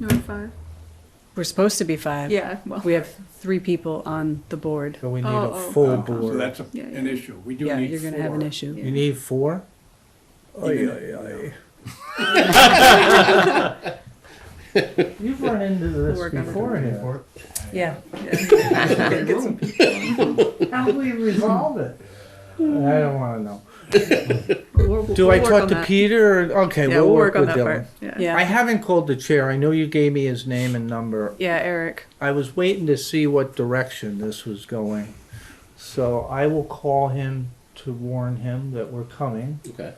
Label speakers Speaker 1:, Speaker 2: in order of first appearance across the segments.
Speaker 1: Number five.
Speaker 2: We're supposed to be five.
Speaker 1: Yeah, well,
Speaker 2: We have three people on the board.
Speaker 3: So we need
Speaker 1: Oh,
Speaker 3: a
Speaker 1: oh.
Speaker 3: full
Speaker 4: Uh, So
Speaker 3: board.
Speaker 4: that's a-
Speaker 1: Yeah,
Speaker 4: an
Speaker 1: yeah.
Speaker 4: issue. We do need
Speaker 2: Yeah,
Speaker 4: four.
Speaker 2: you're gonna have an issue.
Speaker 3: You need four?
Speaker 4: Even-
Speaker 3: You've run into
Speaker 1: We'll
Speaker 3: this
Speaker 1: work on it.
Speaker 3: before here.
Speaker 2: Yeah.
Speaker 3: How do we resolve it? I don't wanna know.
Speaker 1: We'll- we'll-
Speaker 3: Do
Speaker 1: we'll
Speaker 3: I
Speaker 1: work
Speaker 3: talk
Speaker 1: on
Speaker 3: to
Speaker 1: that.
Speaker 3: Peter? or- Okay,
Speaker 1: Yeah,
Speaker 3: we'll work
Speaker 1: on
Speaker 3: with
Speaker 1: that part.
Speaker 3: Dylan.
Speaker 1: Yeah.
Speaker 2: Yeah.
Speaker 3: I haven't called the chair. I know you gave me his name and number.
Speaker 2: Yeah, Eric.
Speaker 3: I was waiting to see what direction this was going. So I will call him to warn him that we're coming
Speaker 5: Okay.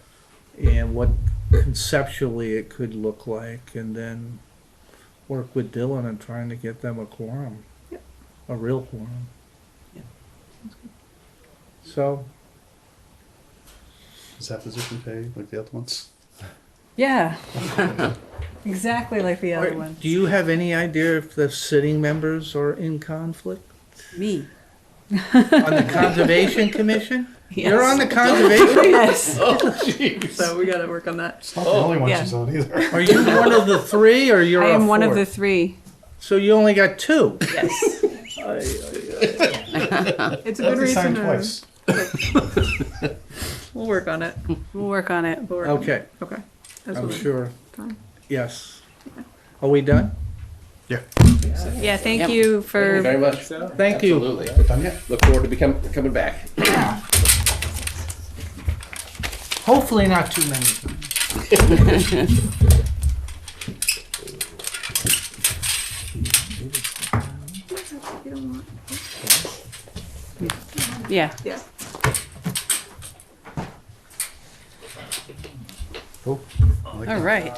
Speaker 3: and what conceptually it could look like and then work with Dylan on trying to get them a quorum.
Speaker 1: Yep.
Speaker 3: A real quorum.
Speaker 2: Yeah.
Speaker 3: So,
Speaker 5: Is that position paid like the other ones?
Speaker 2: Yeah. exactly like the other
Speaker 3: Or-
Speaker 2: one.
Speaker 3: do you have any idea if the sitting members are in conflict?
Speaker 2: Me.
Speaker 3: On the Conservation Commission?
Speaker 2: Yes.
Speaker 3: You're on the Oh, Conservation?
Speaker 2: yes.
Speaker 1: So we gotta work on that.
Speaker 5: It's not the only one
Speaker 2: yeah.
Speaker 5: she's on either.
Speaker 3: Are you one of the three or you're
Speaker 2: I
Speaker 3: a
Speaker 2: am one of the
Speaker 3: fourth?
Speaker 2: three.
Speaker 3: So you only got two?
Speaker 2: Yes.
Speaker 1: It's a good
Speaker 5: It's
Speaker 1: reason.
Speaker 5: signed
Speaker 1: to-
Speaker 5: twice.
Speaker 1: We'll work on it.
Speaker 2: We'll work on it.
Speaker 1: We'll work on it.
Speaker 3: Okay,
Speaker 1: Okay. That's
Speaker 3: I'm
Speaker 1: what we-
Speaker 3: sure.
Speaker 1: fine.
Speaker 3: Yes. Are we done?
Speaker 2: Yeah, thank
Speaker 6: Yep.
Speaker 2: you
Speaker 5: Thank you
Speaker 2: for
Speaker 5: very much.
Speaker 3: Thank you.
Speaker 5: Absolutely. Done yet? Look forward to become, coming back.
Speaker 3: Hopefully not too many.
Speaker 1: You don't want-
Speaker 2: yeah.
Speaker 1: Yeah.
Speaker 2: All right.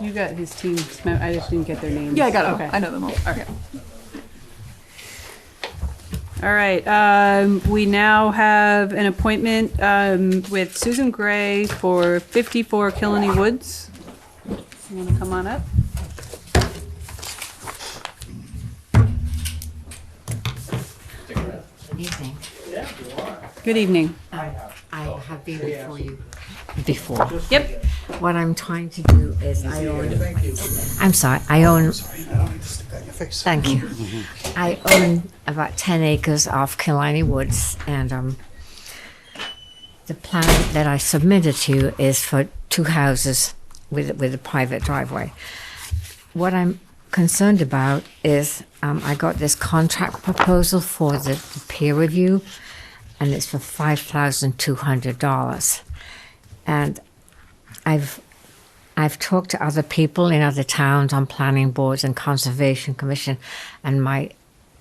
Speaker 2: You got his team's. mem- I just didn't get their names.
Speaker 1: Yeah, I got it.
Speaker 2: Okay.
Speaker 1: I know them all. Yeah.
Speaker 2: All right, um, we now have an appointment, um, with Susan Gray for fifty-four Killany Woods. You wanna come on up?
Speaker 6: Good evening.
Speaker 2: Good evening.
Speaker 6: I have been before you before.
Speaker 2: Yep,
Speaker 6: What I'm trying to do is I own. I'm sorry. I own. Thank you. I own about ten acres off Killiney Woods, and um, the plan that I submitted to you is for two houses with with a private driveway. What I'm concerned about is um, I got this contract proposal for the, the peer review, and it's for five thousand two hundred dollars, and I've I've talked to other people in other towns on planning boards and conservation commission, and my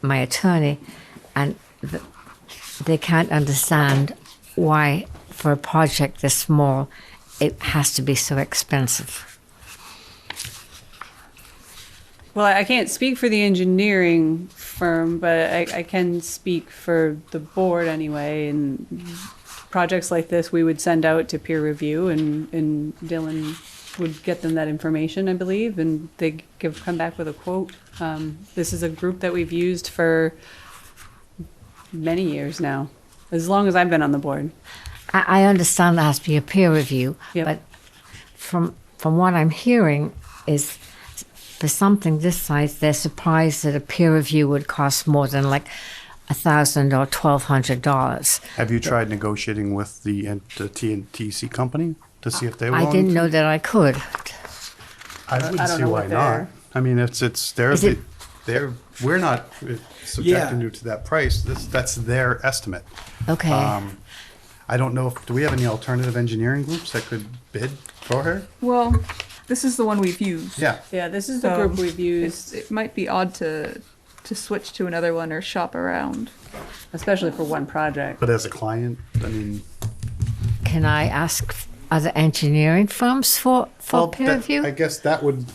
Speaker 6: my attorney, and th- they can't understand why for a project this small it has to be so expensive.
Speaker 2: well, I can't speak for the engineering firm, but I, I can speak for the board anyway, and projects like this, we would send out to peer review, and, and Dylan would get them that information, I believe, and they give, come back with a quote. Um, this is a group that we've used for many years now, as long as I've been on the board.
Speaker 6: I, I understand there has to be a peer review,
Speaker 2: Yep.
Speaker 6: but from from what I'm hearing is for something this size, they're surprised that a peer review would cost more than like a thousand or twelve hundred dollars.
Speaker 7: Have you tried negotiating with the N- the TNTC company to see if they
Speaker 6: I
Speaker 7: want?
Speaker 6: didn't know that I could.
Speaker 7: I wouldn't
Speaker 2: don't
Speaker 7: see
Speaker 2: know
Speaker 7: why
Speaker 2: what
Speaker 7: not.
Speaker 2: they're-
Speaker 7: I mean, it's it's their
Speaker 6: Is it-
Speaker 7: they're we're not uh, subjecting you to that price. That's that's their estimate.
Speaker 6: Okay.
Speaker 7: Um, I don't know if do we have any alternative engineering groups that could bid for her?
Speaker 1: Well, this is the one we've used.
Speaker 7: Yeah.
Speaker 2: Yeah, this is the
Speaker 1: So
Speaker 2: group we've
Speaker 1: It's,
Speaker 2: used,
Speaker 1: it might be odd to to switch to another one or shop around.
Speaker 2: especially for one project.
Speaker 7: But as a client, I mean,
Speaker 6: Can I ask other engineering firms for, for
Speaker 7: well,
Speaker 6: peer
Speaker 7: that-
Speaker 6: review?
Speaker 7: I guess that would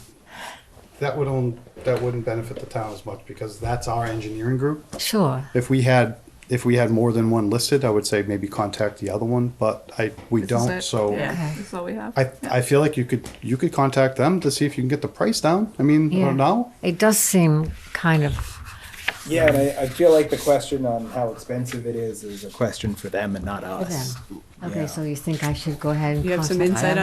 Speaker 7: that would own, that wouldn't benefit the town as much because that's our engineering group.
Speaker 6: sure.
Speaker 7: If we had, if we had more than one listed, I would say maybe contact the other one, but I, we
Speaker 1: This is
Speaker 7: don't,
Speaker 1: it.
Speaker 7: so.
Speaker 1: yeah,
Speaker 6: Okay.
Speaker 1: this is all we have.
Speaker 7: I, I feel like you could, you could contact them to see if you can get the price down. I mean,
Speaker 6: Yeah.
Speaker 7: or now,
Speaker 6: It does seem kind of.
Speaker 8: Yeah, and I, I feel like the question on how expensive it is is a question for them and not us.
Speaker 6: Okay,
Speaker 8: Yeah.
Speaker 6: so you think I should go ahead and
Speaker 2: You have some
Speaker 6: contact
Speaker 2: insight
Speaker 6: them?